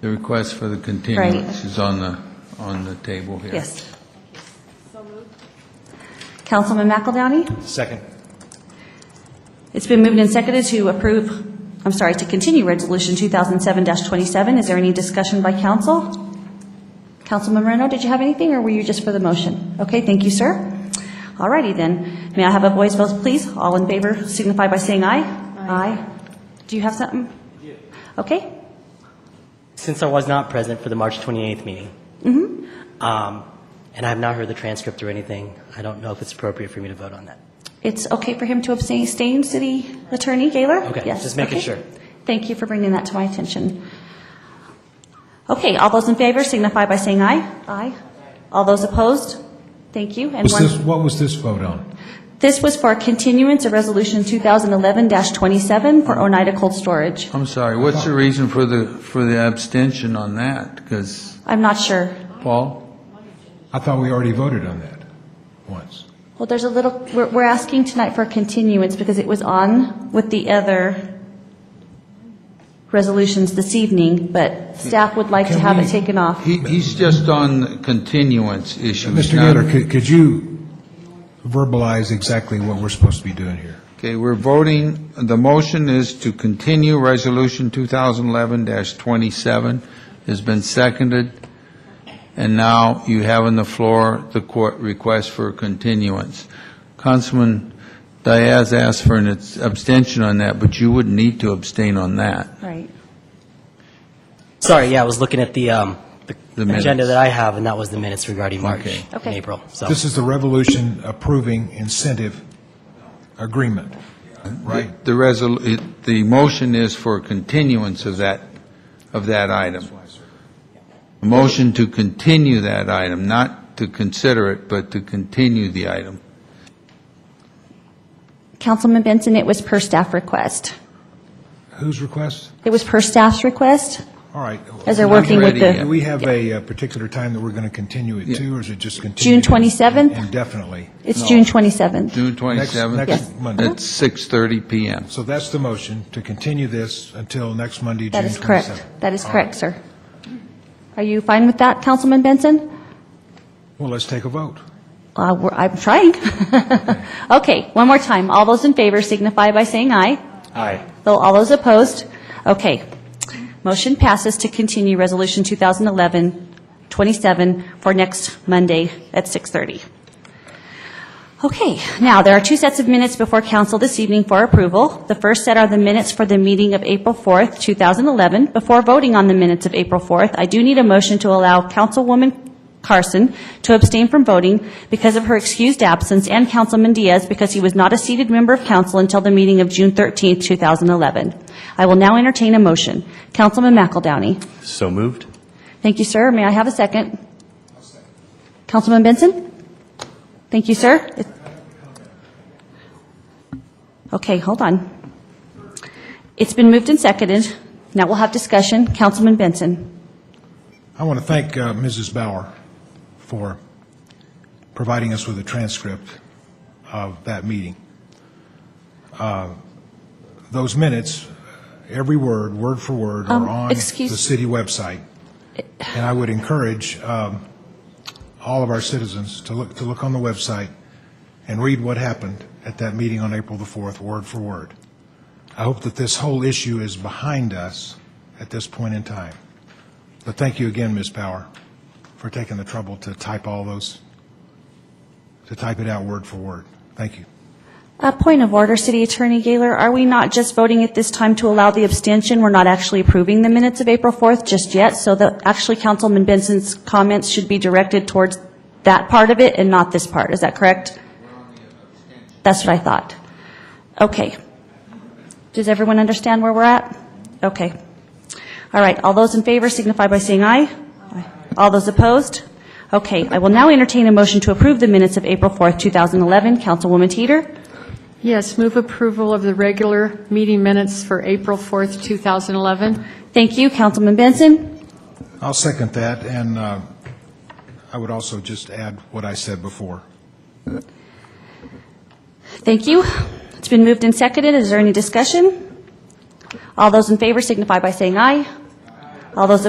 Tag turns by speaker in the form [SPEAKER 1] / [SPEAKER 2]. [SPEAKER 1] The request for the continuance is on the, on the table here.
[SPEAKER 2] Yes. Councilman McElDowney?
[SPEAKER 3] Second.
[SPEAKER 2] It's been moved and seconded to approve, I'm sorry, to continue Resolution 2007-27. Is there any discussion by council? Councilman Moreno, did you have anything, or were you just for the motion? Okay, thank you, sir. All righty then. May I have a voice vote, please? All in favor signify by saying aye. Aye. Do you have something? Okay.
[SPEAKER 3] Since I was not present for the March 28th meeting, um, and I have not heard the transcript or anything, I don't know if it's appropriate for me to vote on that.
[SPEAKER 2] It's okay for him to abstain, Stain, City Attorney Gaylor?
[SPEAKER 3] Okay,
[SPEAKER 2] Yes,
[SPEAKER 3] just making
[SPEAKER 2] okay.
[SPEAKER 3] sure.
[SPEAKER 2] Thank you for bringing that to my attention. Okay, all those in favor signify by saying aye. Aye. All those opposed? Thank you. And
[SPEAKER 4] Was this,
[SPEAKER 2] one,
[SPEAKER 4] what was this vote on?
[SPEAKER 2] this was for continuance of Resolution 2011-27 for Oneida Cold Storage.
[SPEAKER 1] I'm sorry, what's the reason for the, for the abstention on that? Because,
[SPEAKER 2] I'm not sure.
[SPEAKER 1] Paul?
[SPEAKER 4] I thought we already voted on that once.
[SPEAKER 2] Well, there's a little, we're, we're asking tonight for a continuance because it was on with the other resolutions this evening, but staff would like to
[SPEAKER 4] Can
[SPEAKER 2] have it
[SPEAKER 4] we-
[SPEAKER 2] taken off.
[SPEAKER 1] He, he's just on the continuance issues.
[SPEAKER 4] Mr.
[SPEAKER 1] not-
[SPEAKER 4] Gaylor, could, could you verbalize exactly what we're supposed to be doing here?
[SPEAKER 1] Okay, we're voting, the motion is to continue Resolution 2011-27, has been seconded, and now you have on the floor the court request for continuance. Councilman Diaz asked for an abstention on that, but you wouldn't need to abstain on that.
[SPEAKER 2] Right.
[SPEAKER 3] Sorry, yeah, I was looking at the, um,
[SPEAKER 1] The
[SPEAKER 3] the
[SPEAKER 1] minutes.
[SPEAKER 3] agenda that I have, and that was the minutes regarding March
[SPEAKER 1] Okay.
[SPEAKER 3] and
[SPEAKER 2] Okay.
[SPEAKER 3] April, so.
[SPEAKER 4] This is the revolution approving incentive agreement, right?
[SPEAKER 1] The resol, it- the motion is for continuance of that, of that item. A motion to continue that item, not to consider it, but to continue the item.
[SPEAKER 2] Councilman Benson, it was per staff request.
[SPEAKER 4] Whose request?
[SPEAKER 2] It was per staff's request.
[SPEAKER 4] All right.
[SPEAKER 2] As they're working with the-
[SPEAKER 4] Do we have a uh, particular time that we're going to continue it to, or is it just
[SPEAKER 2] June
[SPEAKER 4] continued
[SPEAKER 2] 27th?
[SPEAKER 4] Indefinitely.
[SPEAKER 2] It's June 27th.
[SPEAKER 1] June 27th?
[SPEAKER 4] next Yes. Monday.
[SPEAKER 2] Mm-hmm.
[SPEAKER 1] At 6:30 PM.
[SPEAKER 4] So that's the motion, to continue this until next Monday, June
[SPEAKER 2] That
[SPEAKER 4] 27th.
[SPEAKER 2] is correct. That is
[SPEAKER 4] All right.
[SPEAKER 2] correct, sir. Are you fine with that, Councilman Benson?
[SPEAKER 4] Well, let's take a vote.
[SPEAKER 2] Uh, we're- I'm trying. Okay, one more time. All those in favor signify by saying aye.
[SPEAKER 3] Aye.
[SPEAKER 2] Though all those opposed? Okay. Motion passes to continue Resolution 2011-27 for next Monday at 6:30. Okay, now, there are two sets of minutes before council this evening for approval. The first set are the minutes for the meeting of April 4th, 2011. Before voting on the minutes of April 4th, I do need a motion to allow Councilwoman Carson to abstain from voting because of her excused absence, and Councilman Diaz because he was not a seated member of council until the meeting of June 13th, 2011. I will now entertain a motion. Councilman McElDowney.
[SPEAKER 3] So moved?
[SPEAKER 2] Thank you, sir. May I have a second? Councilman Benson? Thank you, sir. Okay, hold on. It's been moved and seconded. Now we'll have discussion. Councilman Benson?
[SPEAKER 4] I want to thank uh, Mrs. Bauer for providing us with a transcript of that meeting. Uh, Those minutes, every word, word for word,
[SPEAKER 2] Um,
[SPEAKER 4] are on the
[SPEAKER 2] excuse-
[SPEAKER 4] city website. And I would encourage um, all of our citizens to look, to look on the website and read what happened at that meeting on April the 4th, word for word. I hope that this whole issue is behind us at this point in time. But thank you again, Ms. Power, for taking the trouble to type all those, to type it out word for word. Thank you.
[SPEAKER 2] A point of order, City Attorney Gaylor, are we not just voting at this time to allow the abstention? We're not actually approving the minutes of April 4th just yet, so the, actually Councilman Benson's comments should be directed towards that part of it and not this part. Is that correct? That's what I thought. Okay. Does everyone understand where we're at? Okay. All right, all those in favor signify by saying aye. All those opposed? Okay, I will now entertain a motion to approve the minutes of April 4th, 2011. Councilwoman Teeter?
[SPEAKER 5] Yes, move approval of the regular meeting minutes for April 4th, 2011.
[SPEAKER 2] Thank you, Councilman Benson.
[SPEAKER 4] I'll second that, and uh, I would also just add what I said before.
[SPEAKER 2] Thank you. It's been moved and seconded. Is there any discussion? All those in favor signify by saying aye. All those